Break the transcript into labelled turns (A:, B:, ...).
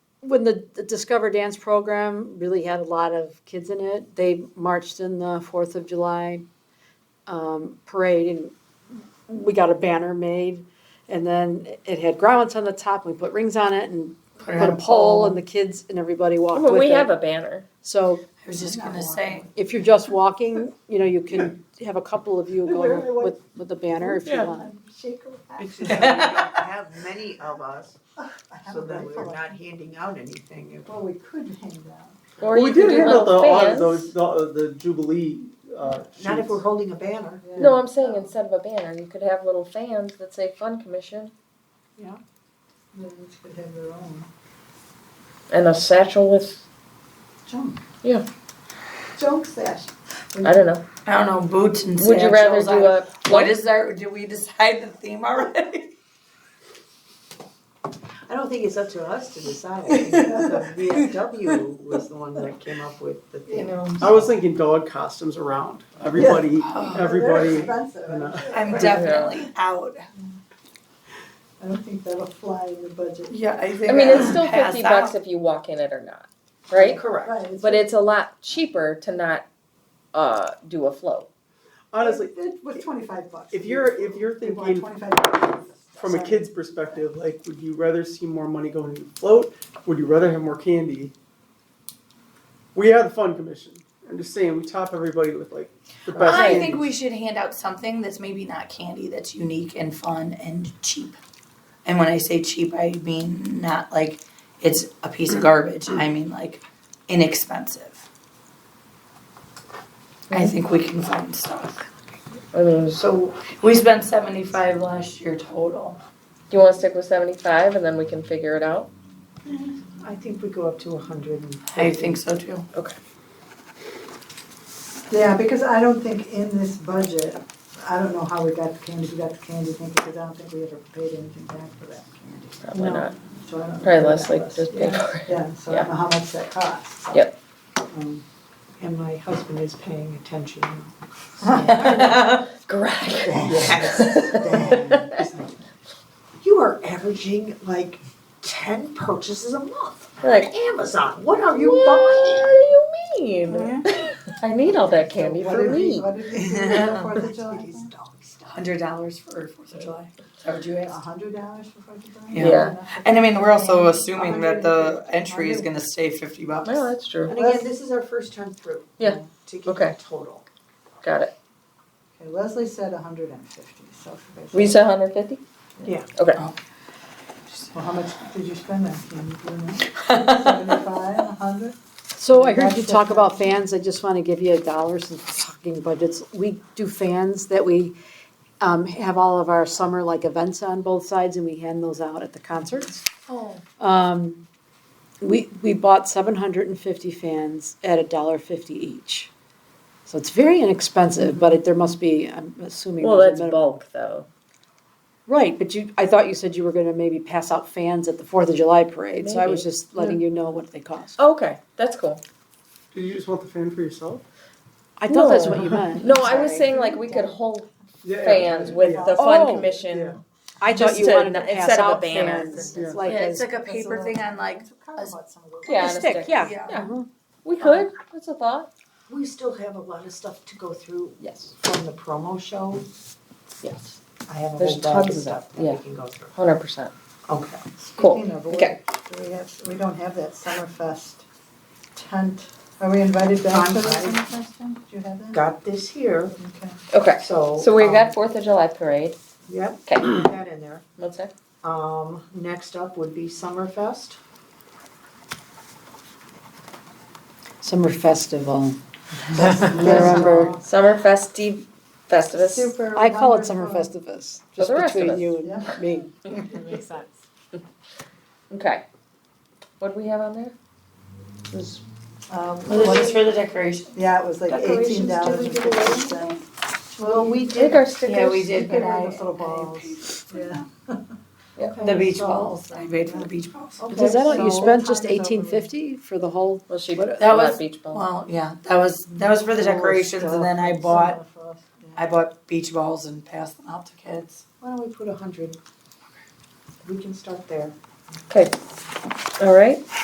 A: when the, the Discover Dance program really had a lot of kids in it, they marched in the Fourth of July um, parade, and we got a banner made, and then it had grommets on the top, and we put rings on it, and
B: it
A: put
B: on
A: a pole,
B: a pole.
A: and the kids and everybody walked
C: Well,
A: with
C: we
A: it.
C: have a banner.
A: so
B: I was just gonna say,
A: if you're just walking, you know, you can have a couple of you going with with the banner if
C: Yeah.
A: you want.
D: Shake her
E: It's just that we don't have many of us, so that we're not handing out anything. If-
D: Well, we could hang down.
C: Or
F: Well,
C: you
F: we
C: could
F: did
C: do
F: hand out the,
C: little
F: uh,
C: fans.
F: those, the, the Jubilee, uh,
E: Not if
F: sheets.
E: we're holding a banner.
C: No, I'm saying instead of a banner, you could have little fans that say Fun Commission
D: Then each could have their own
C: and a satchel with
D: junk.
C: Yeah.
D: Junk sash.
C: I don't know.
B: I don't know, boots and
C: Would you rather
B: satchels.
C: do
B: I-
C: a
B: What is our, did we decide the theme already?
E: I don't think it's up to us to decide. I think The VFW was the one that came up with the
D: You
E: thing.
D: know.
F: I was thinking dog costumes around, everybody,
C: Oh,
D: They're
F: everybody,
D: expensive, I'm
F: and, uh,
D: sure.
B: I'm definitely out.
D: I don't think that'll fly in the budget.
B: Yeah, I think.
C: I mean, it's
B: I'll
C: still
B: pass
C: fifty
B: out.
C: bucks if you walk in it or not, right?
E: Correct.
D: Right.
C: But it's a lot cheaper to not uh, do a float.
F: honestly,
D: It- It was twenty-five bucks.
F: if you're, if you're
D: They want
F: thinking
D: twenty-five bucks.
F: from a
D: Sorry.
F: kid's perspective, like, would you rather see more money going to float? Would you rather have more candy? We are the fun commission. I'm just saying, we top everybody with like the best
B: I
F: candy.
B: think we should hand out something that's maybe not candy, that's unique and fun and cheap. And when I say cheap, I mean not like it's a piece of garbage, I mean like inexpensive. I think we can find stuff.
C: I mean,
B: Mm.
C: do
B: So we spent seventy-five last year total.
C: you want to stick with seventy-five and then we can figure it out?
E: I think we go up to a hundred and.
B: I think so too.
D: Yeah, because I don't think in this budget, I don't know how we got the candy, we got the candy thing, because I don't think we ever paid anything back for that candy.
C: Probably
D: No.
C: not.
D: So I don't know
C: Probably
D: what
C: less
D: that
C: like
D: was.
C: just pay
D: Yeah,
C: for it.
D: Yeah, so I don't know how much that costs. so.
C: Yep.
D: Um,
E: And my husband is paying attention.
C: Greg.
E: Yes. You are averaging like ten purchases a month
C: Like,
E: on Amazon. What are you
C: What
E: buying?
C: do you mean? I need all that candy
D: What
C: for
D: did we,
C: me.
D: what did we do on Fourth of July?
E: These dogs.
B: Hundred dollars for Fourth of July, is that what you
D: A
B: asked?
D: hundred dollars for Fourth of July?
B: Yeah. And I mean, we're also assuming that the entry is gonna stay fifty bucks.
C: No, that's true.
E: And again, this is our first time through.
C: Yeah.
E: To get
C: Okay.
E: the total.
C: Got it.
D: Okay, Leslie said a hundred and fifty, so. if
C: We
D: I-
C: said 150?
D: Well, how much did you spend that candy, do you know? Seventy-five, a hundred?
A: So I heard you talk about fans, I just want to give you a dollar since we're talking budgets. We do fans that we um, have all of our summer like events on both sides and we hand those out at the concerts.
B: Oh.
A: Um, we, we bought seven hundred and fifty fans at a dollar fifty each. So it's very inexpensive, but it, there must be, I'm assuming.
C: Well,
A: there's
C: that's
A: a minimum-
C: bulk, though.
A: Right, but you, I thought you said you were gonna maybe pass out fans at the Fourth of July parade, so I was
C: Maybe.
A: just letting you know what they cost.
C: Oh, Okay, that's cool.
F: Do you just want the fan for yourself?
A: I thought that's
C: No.
A: what you meant.
C: No, I was
A: Sorry.
C: saying like we could hold
F: Yeah.
C: fans with the
A: Oh,
C: fund
F: yeah.
C: commission.
A: I
C: Just
A: thought you
C: to-
A: wanted to pass
C: instead of a
A: out
C: banner.
A: fans.
F: Yeah.
A: Like
B: Yeah,
A: a
B: it's like a paper thing on like,
D: Carla bought some of those.
C: Yeah,
A: a
C: on a
A: stick,
C: stick.
A: yeah.
B: yeah.
C: Yeah.
A: Mhm.
C: We could. That's a thought.
E: We still have a lot of stuff to go through
C: Yes.
E: from the promo show.
C: Yes.
E: I have a
C: There's
E: whole bag of
C: tons of
E: stuff
C: that,
E: that
C: yeah.
E: we can go through.
C: 100%.
E: Okay.
C: Cool.
D: Speaking of which,
C: Okay.
D: do we have, we don't have that Summerfest tent. Are we invited back to the
E: Fine.
D: Summerfest tent? Do you have that?
E: Got this here,
D: Okay.
C: Okay.
E: so.
C: So we
E: um,
C: got 4th of July parade.
E: Yep,
C: Okay.
E: put that in there.
C: What's that?
E: Um, next up would be Summerfest.
A: Summer festival.
D: Remember.
C: Summer festive festivus.
D: Super
A: I call it summer
D: wonderful.
A: festivus,
C: For
A: just
C: Oh, the rest of
A: between
C: us.
A: you
D: Yeah.
A: and me.
E: Makes sense.
C: Okay. What do we have on there? It was
D: Um,
B: Well, this is
D: what-
B: for the decoration.
D: Yeah, it was like
E: Decorations,
D: eighteen
E: did
D: dollars
E: we
D: and
E: give away
D: fifty cents. Well, we
C: I think
D: did.
C: our stickers.
B: Yeah, we did, but
D: Give her
B: I,
D: those little
B: I
D: balls.
B: paid
D: Yeah.
C: Yeah.
B: the beach balls, I paid for the beach balls.
D: Okay,
A: Is that all, you
D: so-
A: spent just
D: Time is over.
A: eighteen fifty for the whole?
C: Well, she
A: What-
C: put
B: That
C: that
B: was-
C: beach ball.
B: Well, yeah, that was, that was for the decorations and then I bought,
D: Summerfest, yeah.
B: I bought beach balls and passed them out to kids.
E: Why don't we put a hundred? We can start there.
C: All right.